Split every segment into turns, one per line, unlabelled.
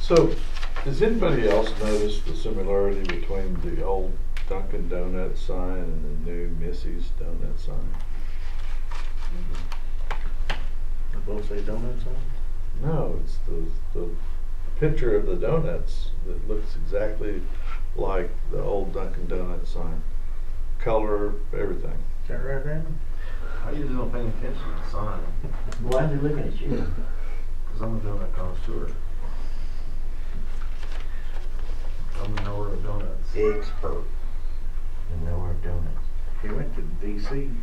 So, does anybody else notice the similarity between the old Dunkin' Donut sign and the new Missy's Donut sign?
They both say donuts on it?
No, it's the, the picture of the donuts that looks exactly like the old Dunkin' Donut sign. Color, everything.
Is that right, Brandon?
How you not paying attention to the sign?
Why are they looking at you?
Because I'm a donut connoisseur. I'm a knower of donuts.
Expert. And nowhere of donuts.
He went to DC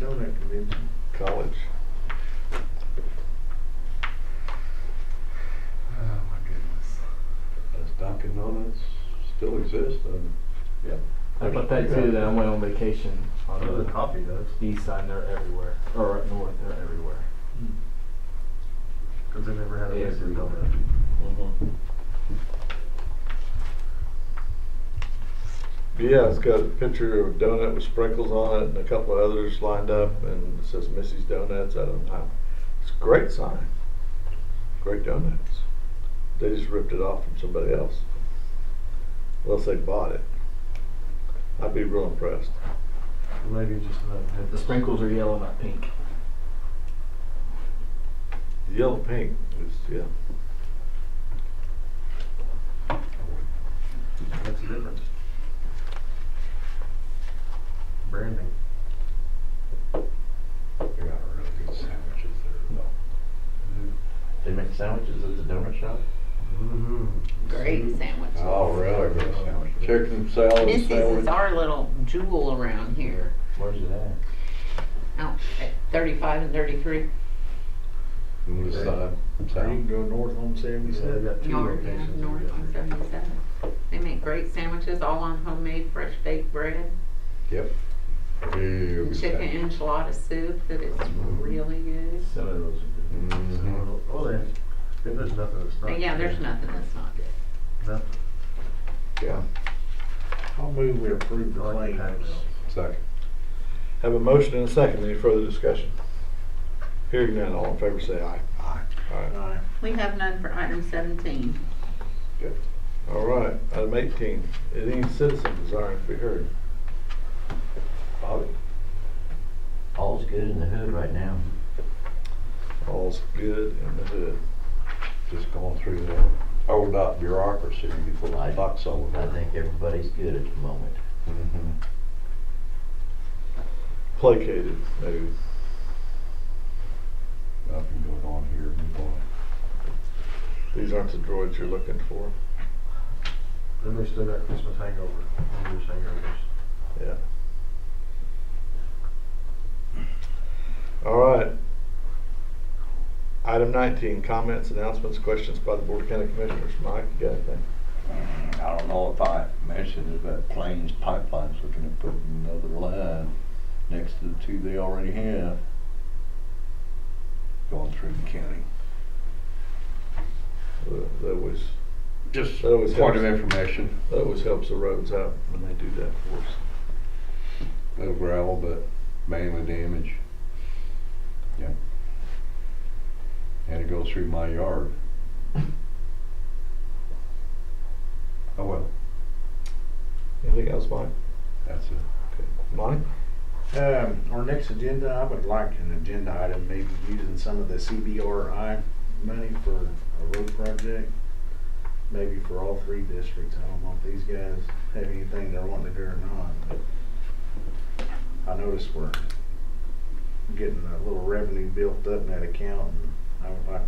Donut Convention.
College.
Oh, my goodness.
Does Dunkin' Donuts still exist? Um, And
How about that too, that I went on vacation on
Other than
the
coffee does,
east side, and they're everywhere, or up north, they're everywhere.
Hmm. because they never had a
Yeah,
Mrs.
agree.
Donut.
Mm-hmm. Yeah, it's got a picture of a donut with sprinkles on it and a couple of others lined up and it says Missy's Donuts. I don't know. It's a great sign. Great donuts. They just ripped it off from somebody else. Unless they bought it. I'd be real impressed.
Maybe just another.
The sprinkles are yellow, not pink.
The yellow pink is, yeah.
That's the difference. Branding.
They got really good sandwiches there.
They make sandwiches at the donut shop?
Mm-hmm.
Great sandwich.
Oh, really good sandwiches.
Chicken salad
Missy's is our little jewel around here.
Where's it at?
Out at thirty-five and thirty-three.
On this side, south. You can go north on
Yeah, they
seventy-seven.
got two
North, yeah,
locations.
north on seventy-seven. They make great sandwiches, all on homemade fresh baked bread. Chicken enchilada soup that is
Mm-hmm.
really good.
Some of those are
Mm-hmm.
So, Oh, there's, if there's nothing that's not.
But yeah, there's nothing that's not good.
Nothing.
Yeah.
I'll move we approve the
I like the
claims.
package.
Second. Have a motion and a second. Any further discussion? Hearing none, all in favor say aye. Aye. Aye.
Aye.
We have none for item seventeen.
All right, item eighteen, any citizen desiring to be heard? Bobby?
All's good in the hood right now.
All's good in the hood.
just going through the old dot bureaucracy before the buck's over.
I think everybody's good at the moment.
Mhm.
Placated, maybe.
Nothing going on here, move on.
These aren't the droids you're looking for.
Then they still got Christmas hangover, New Year's hangovers.
Yeah. All right. Item nineteen, comments, announcements, questions by the Board of County Commissioners. Mike, you got anything?
Mm, I don't know if I mentioned it, but Plains Pipeline's looking to put another line next to the two they already have going through the county.
Uh, That always,
Just
That always
point
helps.
of information,
that always helps the roads out when they do that for us.
little gravel, but mainly damage. Yeah. Had to go through my yard. Oh, well,
Anything else, Mike?
that's it.
Mike?
Um, our next agenda, I would like an agenda item, maybe using some of the CBRI money for a road project. Maybe for all three districts. I don't know if these guys have anything they're wanting to do or not, but I noticed we're getting a little revenue built up in that account and I would like to